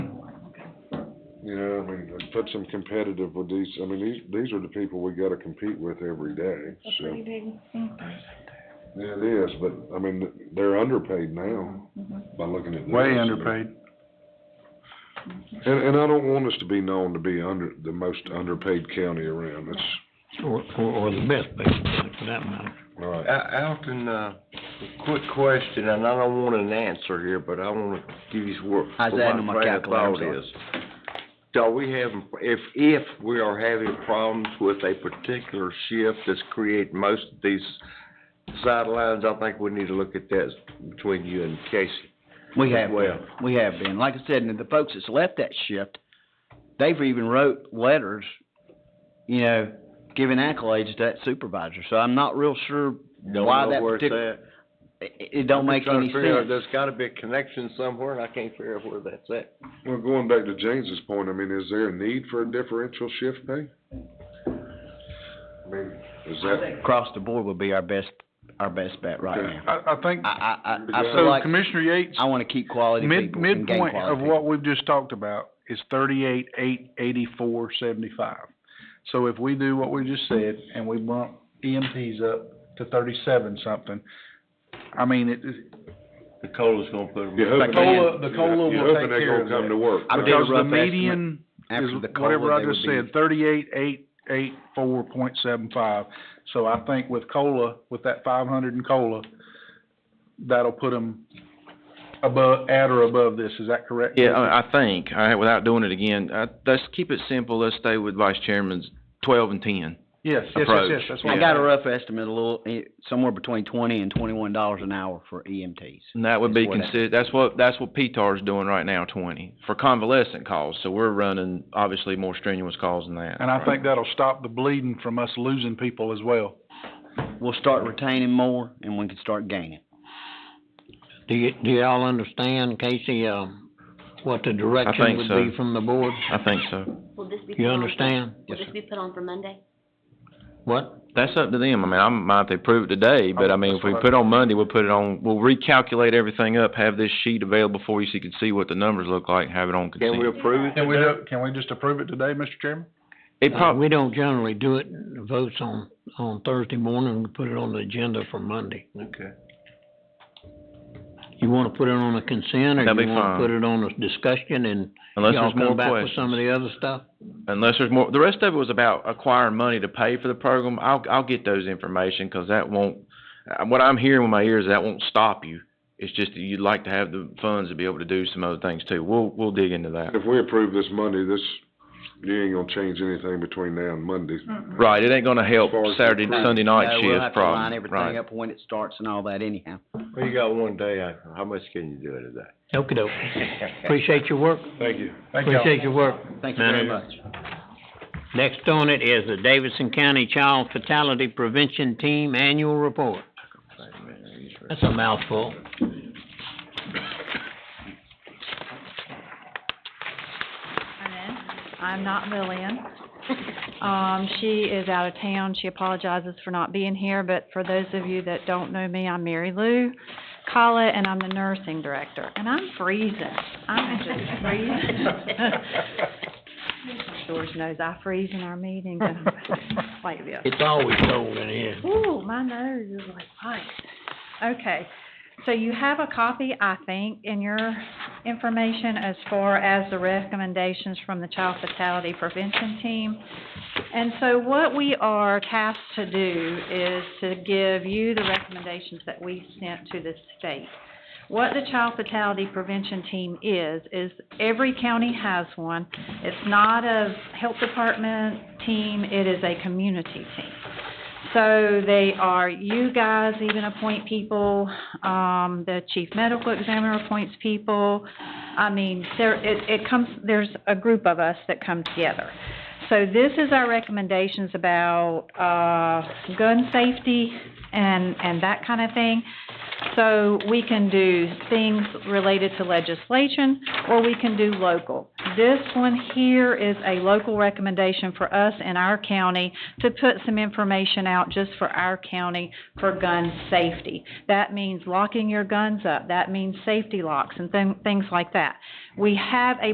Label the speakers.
Speaker 1: Yeah, I mean, and put some competitive with these, I mean, these, these are the people we gotta compete with every day,
Speaker 2: It's a
Speaker 1: so.
Speaker 2: pretty big increase.
Speaker 1: It is, but, I mean, they're underpaid now
Speaker 2: Mhm.
Speaker 1: by looking at this.
Speaker 3: way underpaid.
Speaker 1: And, and I don't want us to be known to be under, the most underpaid county around, that's,
Speaker 4: Or, or, or the best basically, for that matter.
Speaker 1: all right.
Speaker 5: Al- Alton, uh, a quick question, and I don't want an answer here, but I wanna give you what,
Speaker 6: I was
Speaker 5: what
Speaker 6: adding
Speaker 5: my
Speaker 6: my
Speaker 5: train of
Speaker 6: calculator, I'm
Speaker 5: thought
Speaker 6: sorry.
Speaker 5: is. So we having, if, if we are having problems with a particular shift that's creating most of these sidelines, I think we need to look at that between you and Casey.
Speaker 6: We have
Speaker 5: Well.
Speaker 6: been, we have been. Like I said, and the folks that's left that shift, they've even wrote letters, you know, giving accolades to that supervisor. So I'm not real sure
Speaker 5: Don't
Speaker 6: why
Speaker 5: know
Speaker 6: that
Speaker 5: where it's
Speaker 6: particular,
Speaker 5: at.
Speaker 6: it, it don't make
Speaker 5: Trying to
Speaker 6: any
Speaker 5: figure out-
Speaker 6: sense.
Speaker 5: There's gotta be a connection somewhere, and I can't figure out where that's at.
Speaker 1: Well, going back to James's point, I mean, is there a need for a differential shift pay? I mean, is that,
Speaker 6: Across the board would be our best, our best bet right now.
Speaker 3: I, I think,
Speaker 6: I, I, I, I feel
Speaker 3: so
Speaker 6: like
Speaker 3: Commissioner Yates,
Speaker 6: I wanna keep quality
Speaker 3: mid,
Speaker 6: people and gain
Speaker 3: midpoint of
Speaker 6: quality.
Speaker 3: what we've just talked about is thirty-eight, eight, eighty-four, seventy-five. So if we do what we just said and we bump EMTs up to thirty-seven something, I mean, it, it-
Speaker 5: The COLA's gonna put them.
Speaker 1: you're
Speaker 6: Like
Speaker 1: hoping,
Speaker 3: the
Speaker 6: man,
Speaker 3: COLA, the COLA
Speaker 1: you're
Speaker 3: will take
Speaker 1: hoping they're gonna
Speaker 3: care of
Speaker 1: come to
Speaker 3: that.
Speaker 1: work.
Speaker 6: I
Speaker 1: right?
Speaker 6: did a
Speaker 3: Because the
Speaker 6: rough estimate.
Speaker 3: median
Speaker 6: After
Speaker 3: is
Speaker 6: the COLA,
Speaker 3: whatever I
Speaker 6: they would
Speaker 3: just
Speaker 6: be-
Speaker 3: said, thirty-eight, eight, eight, four point seven five. So I think with COLA, with that five hundred in COLA, that'll put them above, at or above this, is that correct?
Speaker 7: Yeah, I I think, all right, without doing it again, uh, let's keep it simple, let's stay with Vice Chairman's twelve and ten.
Speaker 3: Yes, yes, yes, yes,
Speaker 7: approach.
Speaker 3: that's what
Speaker 6: I
Speaker 3: I'm
Speaker 6: got a
Speaker 3: saying.
Speaker 6: rough estimate, a little, eh, somewhere between twenty and twenty-one dollars an hour for E EMTs.
Speaker 7: And that would be
Speaker 6: That's what that-
Speaker 7: consider, that's what, that's what PTAR's doing right now, twenty, for convalescent calls, so we're running obviously more strenuous calls than that.
Speaker 3: And I think that'll stop the bleeding from us losing people as well.
Speaker 6: We'll start retaining more and we can start gaining.
Speaker 4: Do you, do y'all understand, Casey, um, what the direction
Speaker 7: think
Speaker 4: would
Speaker 7: so.
Speaker 4: be from the board?
Speaker 7: I think so.
Speaker 8: Will this be? put
Speaker 4: You
Speaker 8: on for-
Speaker 4: understand?
Speaker 8: Will this be put on for Monday?
Speaker 4: What?
Speaker 7: That's up to them, I mean, I might, they prove it today, but I mean, if we put on Monday, we'll put it on, we'll recalculate everything up, have this sheet available for you so you can see what the numbers look like, and have it on
Speaker 5: Can we
Speaker 7: consent.
Speaker 5: approve it?
Speaker 3: Can we,
Speaker 5: today?
Speaker 3: do- can we just approve it today, Mr. Chairman?
Speaker 7: It
Speaker 4: Uh,
Speaker 7: prob-
Speaker 4: we don't generally do it, the votes on, on Thursday morning, we put it on the agenda for Monday.
Speaker 5: Okay.
Speaker 4: You wanna put it on a consent, or
Speaker 7: That'd
Speaker 4: you
Speaker 7: be
Speaker 4: wanna
Speaker 7: fine.
Speaker 4: put it on a discussion and
Speaker 7: unless
Speaker 4: y'all
Speaker 7: there's more
Speaker 4: come back with
Speaker 7: questions.
Speaker 4: some of the other stuff?
Speaker 7: Unless there's more, the rest of it was about acquiring money to pay for the program. I'll, I'll get those information, cause that won't, uh, what I'm hearing with my ears, that won't stop you. It's just that you'd like to have the funds to be able to do some other things too. We'll, we'll dig into that.
Speaker 1: If we approve this Monday, this, you ain't gonna change anything between now and Monday.
Speaker 7: Right, it ain't gonna help
Speaker 1: As far as the
Speaker 7: Saturday,
Speaker 1: approved-
Speaker 7: Sunday night shift
Speaker 6: Uh,
Speaker 7: problem.
Speaker 6: We'll have to line everything
Speaker 7: Right.
Speaker 6: up when it starts and all that anyhow.
Speaker 5: Well, you got one day, uh, how much can you do it today?
Speaker 4: Okey-doke. Appreciate your work.
Speaker 3: Thank you. Thank y'all.
Speaker 4: Appreciate your work.
Speaker 6: Thank you very
Speaker 4: Manager.
Speaker 6: much.
Speaker 4: Next on it is the Davidson County Child Fatality Prevention Team Annual Report. That's a mouthful.
Speaker 2: And then, I'm not Lillian. Um, she is out of town. She apologizes for not being here, but for those of you that don't know me, I'm Mary Lou Collett, and I'm the nursing director. And I'm freezing. I'm just freezing. George knows I freeze in our meetings, and I'm like this.
Speaker 4: It's always cold in here.
Speaker 2: Ooh, my nose is like ice. Okay, so you have a copy, I think, in your information as far as the recommendations from the Child Fatality Prevention Team. And so what we are tasked to do is to give you the recommendations that we sent to the state. What the Child Fatality Prevention Team is, is every county has one. It's not a health department team, it is a community team. So they are, you guys even appoint people, um, the chief medical examiner appoints people. I mean, there, it, it comes, there's a group of us that come together. So this is our recommendations about, uh, gun safety and, and that kind of thing. So we can do things related to legislation, or we can do local. This one here is a local recommendation for us in our county to put some information out just for our county for gun safety. That means locking your guns up, that means safety locks and thing- things like that. We have a